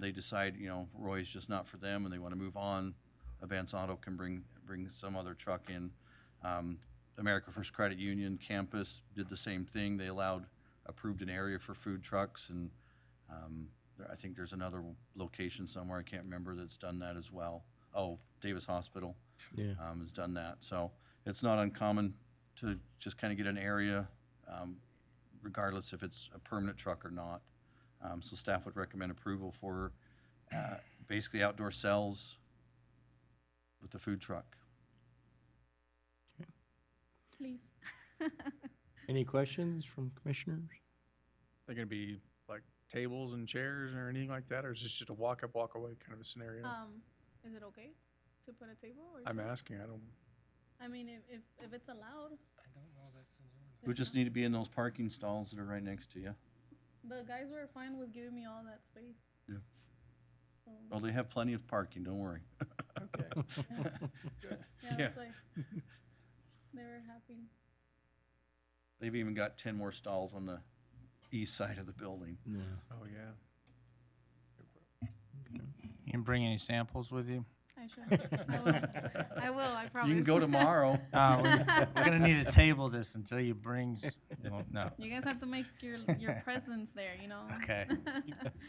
they decide, you know, Roy's just not for them and they want to move on, Advance Auto can bring, bring some other truck in. Um, America First Credit Union campus did the same thing. They allowed, approved an area for food trucks and um, there- I think there's another location somewhere, I can't remember, that's done that as well. Oh, Davis Hospital Yeah. um, has done that. So it's not uncommon to just kind of get an area, um, regardless if it's a permanent truck or not. Um, so staff would recommend approval for, uh, basically outdoor cells with the food truck. Please. Any questions from commissioners? They're gonna be like tables and chairs or anything like that, or is this just a walk up, walk away kind of a scenario? Um, is it okay to put a table or? I'm do- asking, I don't, I mean, if, if, if it's allowed. It would just need to be in those parking stalls that are right next to you. The guys were fine with giving me all that space. Yeah. So, Well, they have plenty of parking, don't worry. Yeah, Yeah. that's why. They were happy. They've even got ten more stalls on the east side of the building. No. oh, yeah. You can bring any samples with you? I should. I will. I will, I promise. You can go tomorrow. Uh, we're, we're gonna need to table this until you brings, well, no, You guys have to make your, your presence there, you know? okay.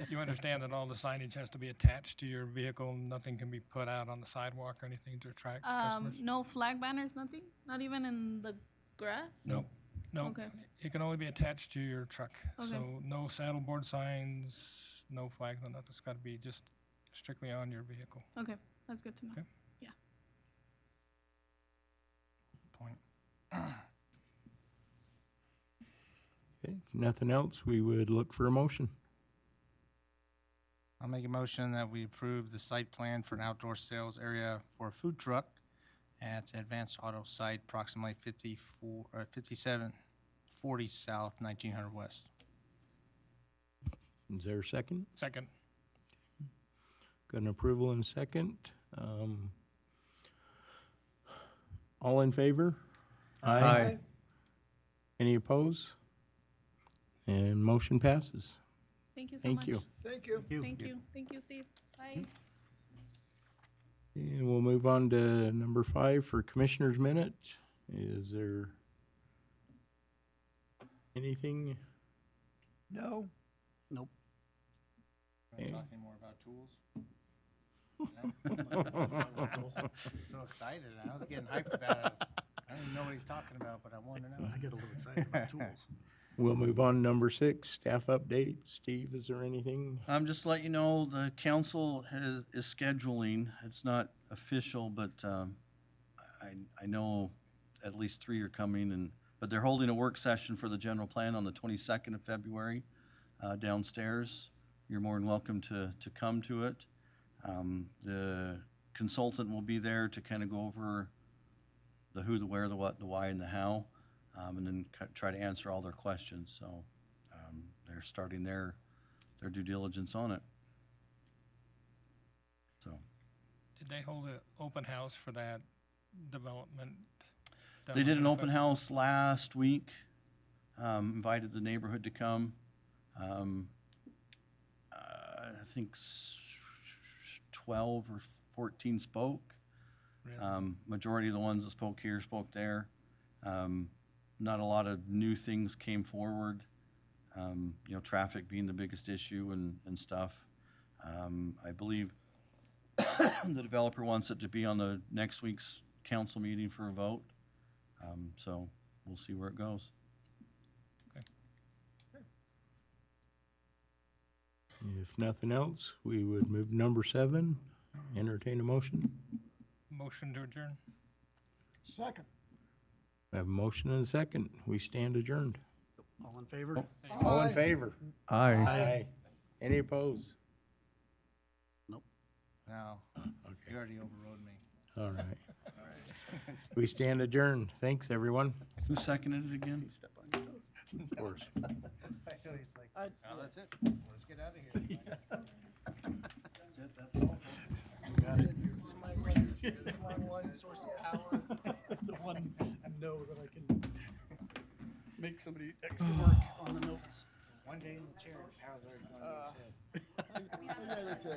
You understand that all the signage has to be attached to your vehicle, nothing can be put out on the sidewalk or anything to attract Um, customers? no flag banners, nothing? Not even in the grass? No, no, Okay. it can only be attached to your truck. Okay. So no saddleboard signs, no flags, no nothing, it's gotta be just strictly on your vehicle. Okay, that's good to know. Okay. Point. Okay, if nothing else, we would look for a motion. I'll make a motion that we approve the site plan for an outdoor sales area for a food truck at the Advanced Auto Site, approximately fifty-four, or fifty-seven forty South, nineteen hundred West. Is there a second? Second, Got an approval and a second. Um, all in favor? Aye. Any opposed? And motion passes. Thank you so much. Thank you. Thank you. Thank you, Steve. Bye. And we'll move on to number five for Commissioner's Minute. Is there anything? No. Nope. Okay. Talk anymore about tools? So excited, I was getting hyped about it. I don't even know what he's talking about, but I wanted to know. I get a little excited about tools. We'll move on to number six, staff update. Steve, is there anything? Um, just to let you know, the council has, is scheduling, it's not official, but, um, I, I know at least three are coming and, but they're holding a work session for the general plan on the twenty-second of February, uh, downstairs. You're more than welcome to, to come to it. Um, the consultant will be there to kind of go over the who, the where, the what, the why, and the how, um, and then ki- try to answer all their questions, so, um, they're starting their their due diligence on it. So, did they hold an open house for that development? they did an open house. house last week, um, invited the neighborhood to come. Um, uh, I think s- twelve or fourteen spoke. Really? Um, majority of the ones that spoke here spoke there. Um, not a lot of new things came forward. Um, you know, traffic being the biggest issue and, and stuff. Um, I believe the developer wants it to be on the next week's council meeting for a vote. Um, so we'll see where it goes. If nothing else, we would move to number seven, entertain a motion. Motion to adjourn? Second. I have a motion and a second. We stand adjourned. All in favor? All in favor? Aye. Aye. Any opposed? No, you already overrode me. All right. We stand adjourned. Thanks, everyone. Who seconded it again? Step on your toes. Of course. He's like, I- "Oh, that's it, let's get out of here. It's my one- it's my one source of power. The one I know that I can make somebody extra work on the notes. One day in the chair, the power's already gone to I his head. gotta tell